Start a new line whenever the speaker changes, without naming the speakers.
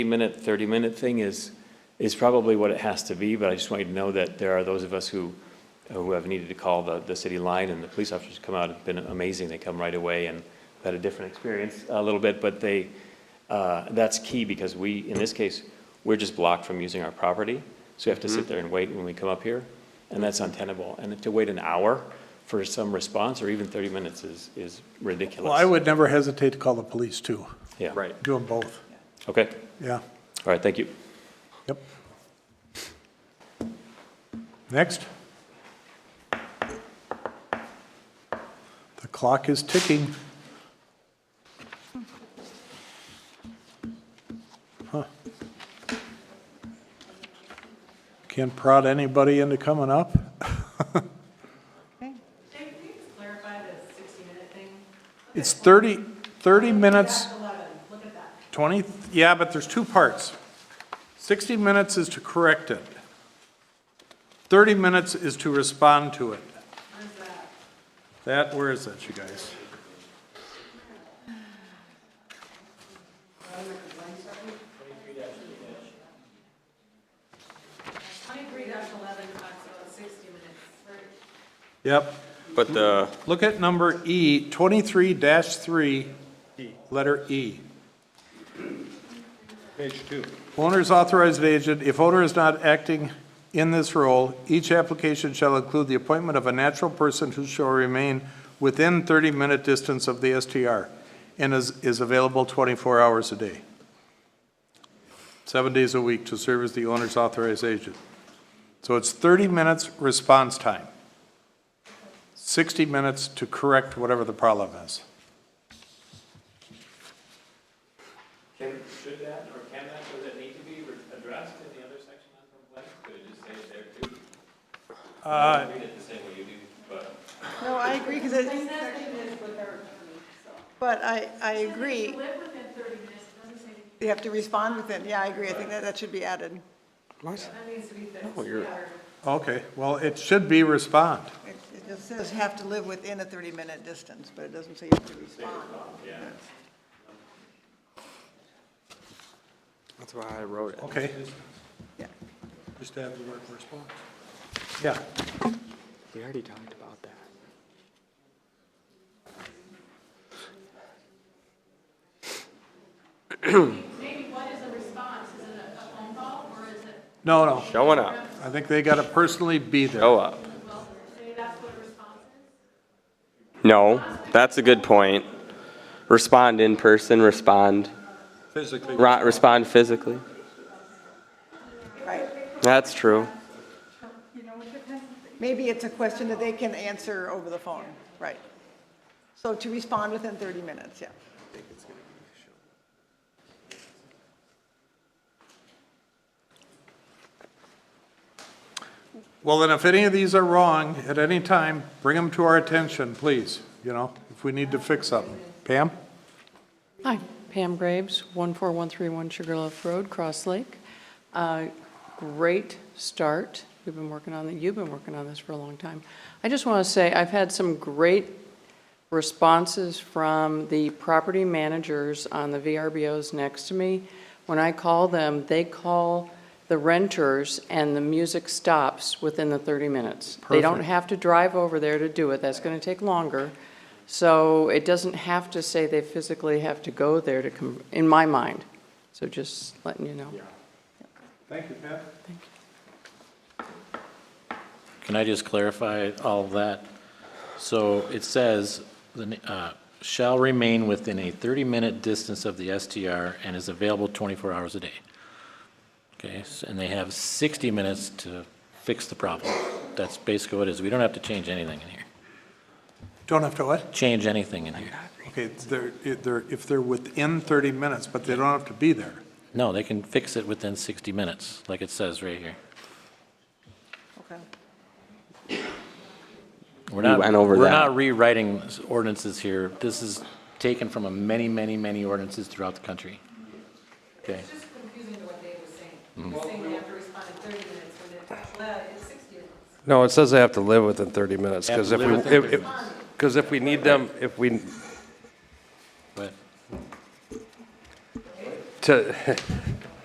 minute, 30-minute thing is, is probably what it has to be, but I just want you to know that there are those of us who, who have needed to call the, the city line, and the police officers come out, have been amazing, they come right away, and I've had a different experience a little bit, but they, uh, that's key, because we, in this case, we're just blocked from using our property, so we have to
Mm-hmm.
sit there and wait when we come up here, and that's untenable, and to wait an hour for some response, or even 30 minutes is, is ridiculous.
Well, I would never hesitate to call the police too.
Yeah.
Right.
Do them both.
Okay,
Yeah,
all right, thank you.
yep. Next. The clock is ticking. Huh. Can't prod anybody into coming up?
Jake, can you just clarify the 60-minute thing?
It's 30, 30 minutes.
That's 11, look at that.
20, yeah, but there's two parts. 60 minutes is to correct it. 30 minutes is to respond to it. That, where is that, you guys?
Twenty-three eleven talks about 60 minutes.
Yep.
But the,
Look at number E, 23-3, letter E.
Page two.
Owner's authorized agent, if owner is not acting in this role, each application shall include the appointment of a natural person who shall remain within 30-minute distance of the STR and is, is available 24 hours a day, seven days a week to serve as the owner's authorized agent. So it's 30 minutes response time, 60 minutes to correct whatever the problem is.
Can, should that, or can that, does it need to be re- addressed in the other section on complaint? Could it just say it there too? I don't Read it the same way you do, but.
No, I agree, because it, but I, I agree,
Live within 30 minutes, it doesn't say,
you have to respond within, yeah, I agree, I think that, that should be added.
that needs to be fixed.
No, you're-
Yeah.
Okay, well, it should be respond.
It it just says have to live within a 30-minute distance, but it doesn't say you have to respond.
that's why I wrote it.
Okay,
Yeah.
Just have the word response.
yeah.
We already talked about that.
Maybe what is a response? Is it a a phone call or is it,
No, no.
Showing up,
I think they gotta personally be there.
show up.
well, say that's what a response is?
No, that's a good point. Respond in person, respond,
Physically.
ro- respond physically.
Right.
That's true.
Maybe it's a question that they can answer over the phone, right. So to respond within 30 minutes, yeah.
Well, then if any of these are wrong at any time, bring them to our attention, please, you know, if we need to fix something. Pam?
Hi, Pam Graves, 14131 Sugarloaf Road, Cross Lake. Uh, Great start. We've been working on, you've been working on this for a long time. I just want to say, I've had some great responses from the property managers on the VRBOs next to me. When I call them, they call the renters, and the music stops within the 30 minutes. They don't
Perfect.
have to drive over there to do it, that's going to take longer. So it doesn't have to say they physically have to go there to come, in my mind. So just letting you know.
Thank you, Pam.
Can I just clarify all of that? So it says, the, uh, shall remain within a 30-minute distance of the STR and is available 24 hours a day. Okay, s- and they have 60 minutes to fix the problem. That's basically what it is. We don't have to change anything in here.
Don't have to what?
Change anything in here.
Okay, it's they're, if they're, if they're within thirty minutes, but they don't have to be there.
No, they can fix it within 60 minutes, like it says right here.
Okay.
We're
We
not,
went over
we're
that.
not rewriting s- ordinances here. This is taken from a many, many, many ordinances throughout the country. Okay,
It's just confusing to what Dave was saying. He was saying they have to respond in 30 minutes when it, well, it's 60 minutes.
No, it says they have to live within 30 minutes,
Have
because
to
if
live
we,
within 30
because if we need them, if we,
but
to,